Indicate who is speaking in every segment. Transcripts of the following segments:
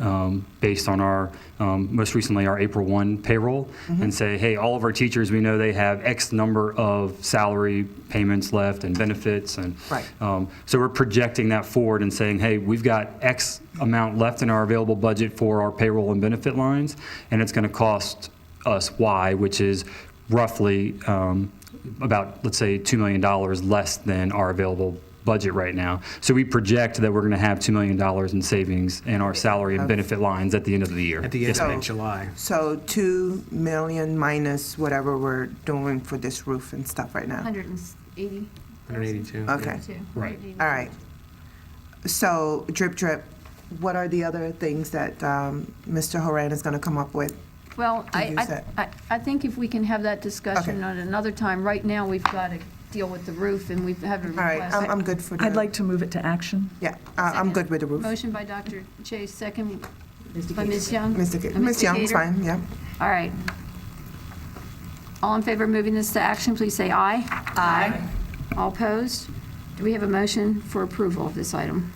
Speaker 1: um, based on our, um, most recently, our April 1 payroll, and say, hey, all of our teachers, we know they have X number of salary payments left and benefits, and
Speaker 2: Right.
Speaker 1: um, so we're projecting that forward and saying, hey, we've got X amount left in our available budget for our payroll and benefit lines, and it's going to cost us Y, which is roughly um, about, let's say, $2 million less than our available budget right now. So we project that we're going to have $2 million in savings in our salary and benefit lines at the end of the year.
Speaker 3: At the end
Speaker 1: Yes, ma'am.
Speaker 3: of July.
Speaker 2: So 2 million minus whatever we're doing for this roof and stuff right now?
Speaker 4: 180.
Speaker 3: 182.
Speaker 2: Okay,
Speaker 1: Right.
Speaker 2: all right. So drip, drip, what are the other things that um, Mr. Horan is going to come up with?
Speaker 4: Well,
Speaker 2: to
Speaker 4: I,
Speaker 2: use
Speaker 4: I-
Speaker 2: that.
Speaker 4: I, I think if we can have that discussion
Speaker 2: Okay.
Speaker 4: at another time, right now, we've got to deal with the roof, and we have a
Speaker 2: All right,
Speaker 4: request.
Speaker 2: I'm I'm good for the...
Speaker 5: I'd like to move it to action.
Speaker 2: Yeah, I- I'm good with the roof.
Speaker 4: Motion by Dr. Chase, second by Ms. Young.
Speaker 2: Mr.
Speaker 4: Uh,
Speaker 2: Ga-
Speaker 4: Mr.
Speaker 2: Ms. Young's
Speaker 4: Gator.
Speaker 2: fine, yeah.
Speaker 4: All right. All in favor of moving this to action, please say aye. Aye. All opposed? Do we have a motion for approval of this item?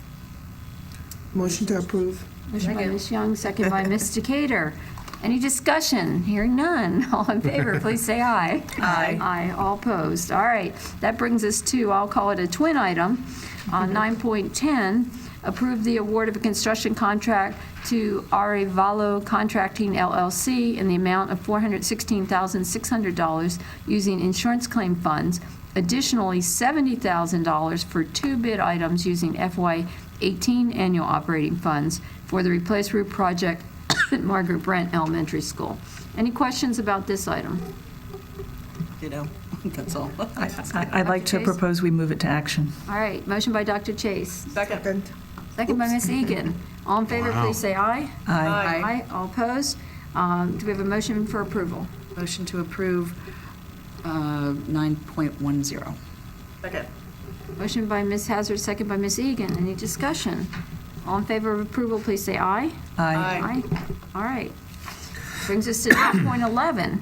Speaker 2: Motion to approve.
Speaker 4: Motion by Ms. Young, second by Ms. Decatur. Any discussion? Hearing none. All in favor, please say aye. Aye. Aye, all opposed. All right. That brings us to, I'll call it a twin item, Uh, on 9.10, approve the award of a construction contract to Arevalo Contracting LLC in the amount of $416,600 using insurance claim funds, additionally $70,000 for two bid items using FY 18 annual operating funds for the Replace Roof Project at Margaret Brent Elementary School. Any questions about this item?
Speaker 6: you know, that's all.
Speaker 5: I- I'd like to
Speaker 4: Chase?
Speaker 5: propose we move it to action.
Speaker 4: All right, motion by Dr. Chase,
Speaker 6: Second.
Speaker 4: second by Ms. Egan. All in favor, please say aye.
Speaker 5: Aye.
Speaker 4: Aye. All opposed? Um, Do we have a motion for approval?
Speaker 6: Motion to approve uh, 9.10.
Speaker 4: Motion by Ms. Hazard, second by Ms. Egan. Any discussion? All in favor of approval, please say aye. Aye.
Speaker 5: Aye.
Speaker 4: All right. Brings us to 9.11.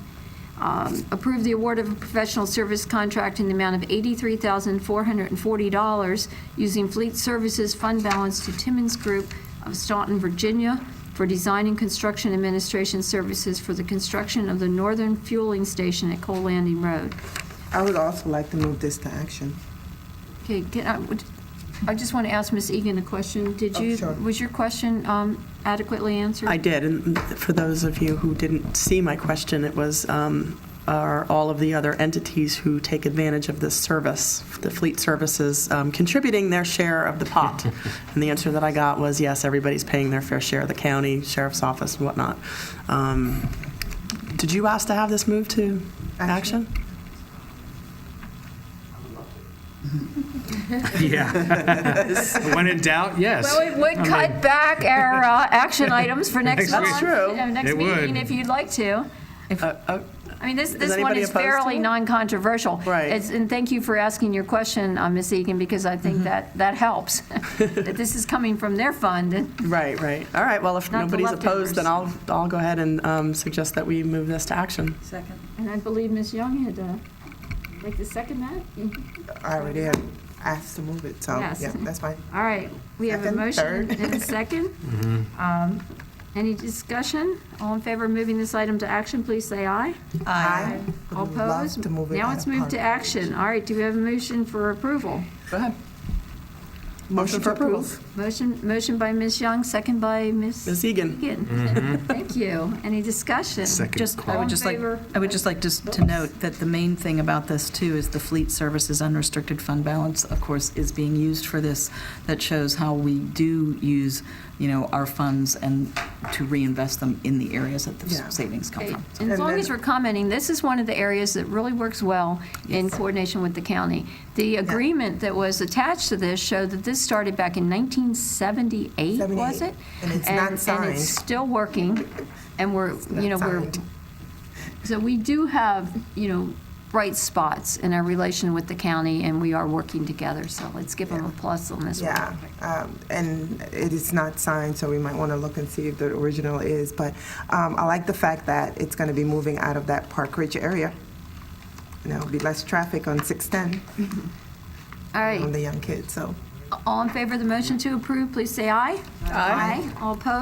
Speaker 4: Um, Approve the award of a professional service contract in the amount of $83,440 using Fleet Services Fund Balance to Timmons Group of Staunton, Virginia, for design and construction administration services for the construction of the northern fueling station at Cole Landing Road.
Speaker 2: I would also like to move this to action.
Speaker 4: Okay, can I, would- I just want to ask Ms. Egan a question. Did
Speaker 2: Oh,
Speaker 4: you,
Speaker 2: sure.
Speaker 4: was your question um, adequately answered?
Speaker 7: I did, and for those of you who didn't see my question, it was, um, are all of the other entities who take advantage of this service, the fleet services, um, contributing their share of the pot? And the answer that I got was, yes, everybody's paying their fair share, the county, sheriff's office, and whatnot. Um, Did you ask to have this moved to
Speaker 2: Action.
Speaker 7: action?
Speaker 3: Yeah. When in doubt, yes.
Speaker 4: Well, it would cut back our uh, action items for next month.
Speaker 3: That's
Speaker 7: true.
Speaker 4: you know, Next
Speaker 3: It would.
Speaker 4: meeting, if you'd like to. I mean, this, this one
Speaker 7: anybody
Speaker 4: is
Speaker 7: opposed to
Speaker 4: fairly
Speaker 7: it?
Speaker 4: non-controversial.
Speaker 7: Right.
Speaker 4: It's- And thank you for asking your question, uh, Ms. Egan, because I think that, that helps, that this is coming from their fund. and-
Speaker 7: Right, right. All right, well, if
Speaker 4: Not the
Speaker 7: nobody's opposed, then I'll,
Speaker 4: leftovers.
Speaker 7: I'll go ahead and um, suggest that we move this to action.
Speaker 6: Second.
Speaker 4: And I believe Ms. Young had, uh, like, the second that?
Speaker 2: I already had asked to move it, so,
Speaker 4: Yes.
Speaker 2: yeah, that's fine.
Speaker 4: All right, we have a
Speaker 2: Second,
Speaker 4: motion
Speaker 2: third.
Speaker 4: and a second. Um, Any discussion? All in favor of moving this item to action, please say aye.
Speaker 2: Aye.
Speaker 4: All
Speaker 2: Would love
Speaker 4: opposed?
Speaker 2: to move it
Speaker 4: Now
Speaker 2: out
Speaker 4: it's
Speaker 2: of
Speaker 4: moved to
Speaker 2: park.
Speaker 4: action. All right, do we have a motion for approval?
Speaker 7: Go ahead.
Speaker 2: Motion to approve.
Speaker 4: Motion, motion by Ms. Young, second by Ms.
Speaker 7: Ms. Egan?
Speaker 4: Egan. Thank you. Any discussion?
Speaker 3: Second
Speaker 6: Just,
Speaker 4: All
Speaker 6: I
Speaker 4: in
Speaker 6: would just like,
Speaker 4: favor?
Speaker 6: I would just like just to note that the main thing about this, too, is the fleet services unrestricted fund balance, of course, is being used for this. That shows how we do use, you know, our funds and to reinvest them in the areas that the
Speaker 2: Yeah.
Speaker 6: savings come
Speaker 4: Okay,
Speaker 6: from.
Speaker 4: And
Speaker 2: And
Speaker 4: as long
Speaker 2: then-
Speaker 4: as we're commenting, this is one of the areas that really works well in coordination with the county. The agreement that was attached to this showed that this started back in 1978, was
Speaker 2: 78,
Speaker 4: it?
Speaker 2: and it's not
Speaker 4: And
Speaker 2: signed.
Speaker 4: it's still working, and we're,
Speaker 2: not
Speaker 4: you know, we're,
Speaker 2: signed.
Speaker 4: so we do have, you know, bright spots in our relation with the county, and we are working together, so let's give them a plus on this one.
Speaker 2: Yeah, um, and it is not signed, so we might want to look and see if the original is. But um, I like the fact that it's going to be moving out of that Park Ridge area. And there'll be less traffic on 610
Speaker 4: All right,
Speaker 2: on the young kids, so.
Speaker 4: all in favor of the motion to approve, please say aye. Aye. All opposed?